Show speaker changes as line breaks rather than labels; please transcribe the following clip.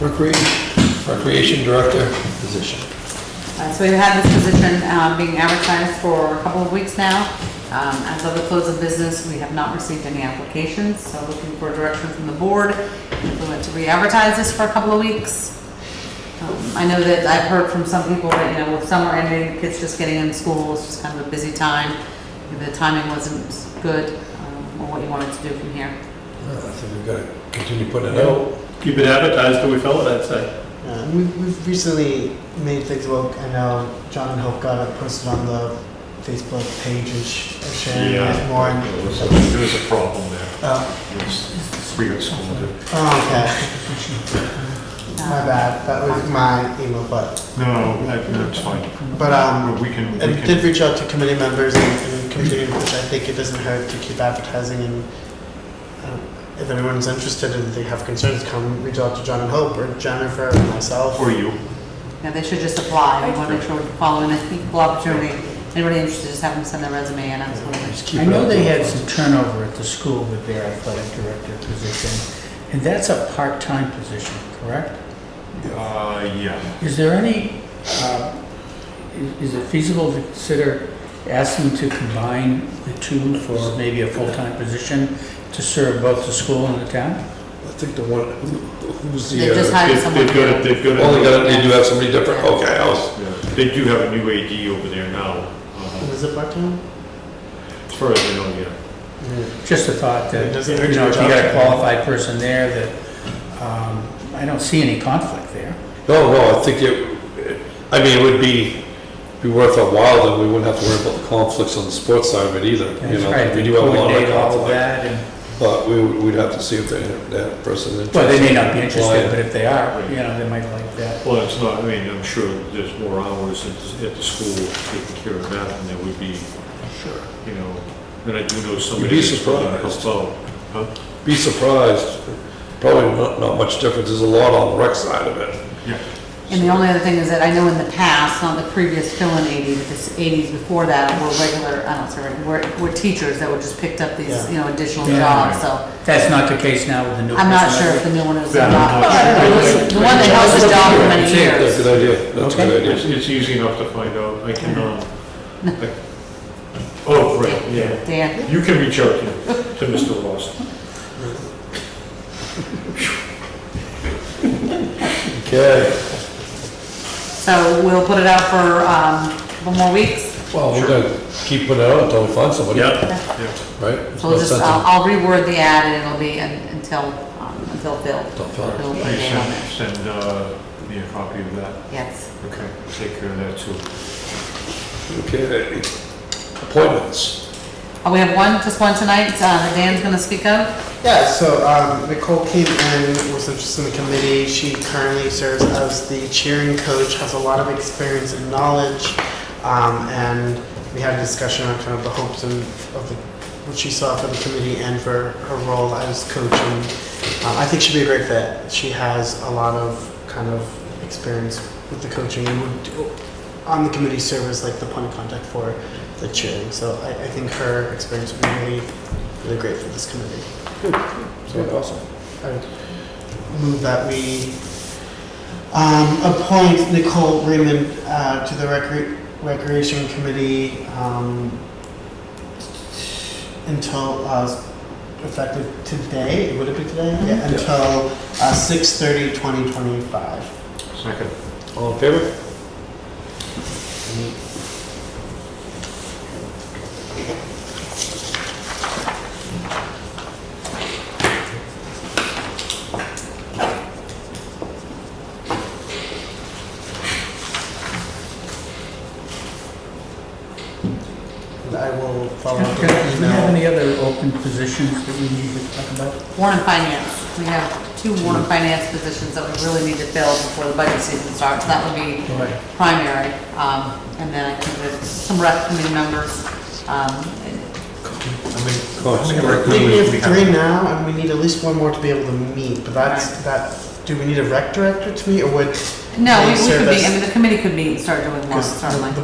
Recreation, Recreation Director position.
Uh, So we've had this position uh, being advertised for a couple of weeks now. Um, As of the close of business, we have not received any applications, so looking for direction from the board. If we want to re-advertise this for a couple of weeks. Um, I know that I've heard from some people that, you know, with summer ending, kids just getting in school, it's just kind of a busy time. The timing wasn't good, um, or what you wanted to do from here.
Ah, I think we've got to continue putting it out.
Well, keep it advertised till we fill it, I'd say.
Uh, we- We've recently made things work. I know John and Hope got it posted on the Facebook page and sh- and sharing it more. and-
There was a- there was a problem there.
Oh,
It was- We got scolded.
oh, okay.
Um,
My bad. That was my email, but,
No, I- that's fine.
but, um,
We can, we
and did
can,
reach out to committee members and, and community members. I think it doesn't hurt to keep advertising and um, if anyone's interested and they have concerns, come reach out to John and Hope or Jennifer or myself.
for you.
Now, they should just apply. We want to make sure we're following an equal opportunity. Anybody interested, just have them send their resume in. I'm just wondering.
Just keep
I
it
know
up.
they had some turnover at the school with their athletic director position, and that's a part-time position, correct?
Uh, yeah.
Is there any, uh, i- is it feasible to consider asking to combine the two for maybe a full-time position to serve both the school and the town?
I think the one, who- who's
They
the,
just
uh,
hired
They've
someone
they've got, a- they've got. a-
only got, they do have somebody different? Okay, I was,
Yeah, They do have a new AD over there now,
And
uh,
Is it part-time?
as far as I know, yeah.
Yeah.
Just a thought
It
that,
doesn't hurt
you know,
your
if you
job.
got a qualified person there, that, um, I don't see any conflict there.
no, no, I think it, I mean, it would be, be worth a while, then we wouldn't have to worry about the conflicts on the sports side of it either. You
That's
know,
right,
we
they
do have a lot of
coordinate all of
conflict.
that, and,
But we, would- we'd have to see if they, that person is interested.
well, they may not be
in
interested,
applying.
but if they are, you know, they might like that.
Well, it's not, I mean, I'm sure there's more hours at, at the school taking care of that than there would be,
Sure.
you know, and I do know
You'd
somebody.
be
that's willing to
surprised.
help out. Huh?
Be surprised, probably not, not much difference, there's a lot on the rec side of it.
Yeah.
And the only other thing is that I know in the past, not the previous fill-in 80, but this 80s before that, were regular, I don't say, regular, were, were teachers that were just picked up these,
Yeah.
you know, additional
Yeah.
jobs, so
That's not the case now with the new.
I'm not
personnel.
sure if the new one is or
Yeah, I'm
not.
not sure.
It was The one that held the job for many
That's a
years.
good idea, that's a
Okay.
good idea.
It's, it's easy enough to find out, I can, um, I- oh, right, yeah.
Dan,
You can reach out to, to Mr. Ross.
Okay,
so we'll put it out for, um, a couple more weeks.
well, we're gonna keep putting it out until we find somebody, right? There's
So
no
we'll just,
sense in-
I'll, I'll reword the ad and it'll be un- until, um, until filled.
Until filled.
We'll put
Please
it on there.
send, send, uh, me a copy of that,
Yes.
okay, take care of that too.
Okay, appointments.
Oh, we have one, just one tonight, uh, that Dan's gonna speak of.
Yeah, so um, Nicole came in, was interested in the committee. She currently serves as the cheering coach, has a lot of experience and knowledge. Um, and we had a discussion on kind of the hopes and of the, what she saw for the committee and for her role as coach. And um, I think she'd be a great fit. She has a lot of kind of experience with the coaching and would do, on the committee serve as like the point of contact for the cheering. So I, I think her experience would be really, really great for this committee.
Awesome.
I would move that we um, appoint Nicole Raymond uh, to the recre- Recreation Committee um, until, uh, effective today, would it be today? Mm-hmm. Yeah, until uh, 6:30, 2025.
Second.
All in favor?
And I will follow up
Okay,
with an
Do we have
email.
any other open positions that we need to talk about?
Warren and Finance, we have two Warren and Finance positions that we really need to fill before the budget season starts. That would be
Right.
primary, um, and then I think there's some rec committee members. um,
Oh, it's
I
great.
think we have three now, and we need at least one more to be able to meet, but that's, that, do we need a rec director to meet, or would?
No, we
they
we
serve
could be,
as-
I mean, the committee could meet and start doing more,
Because the-
certainly.
the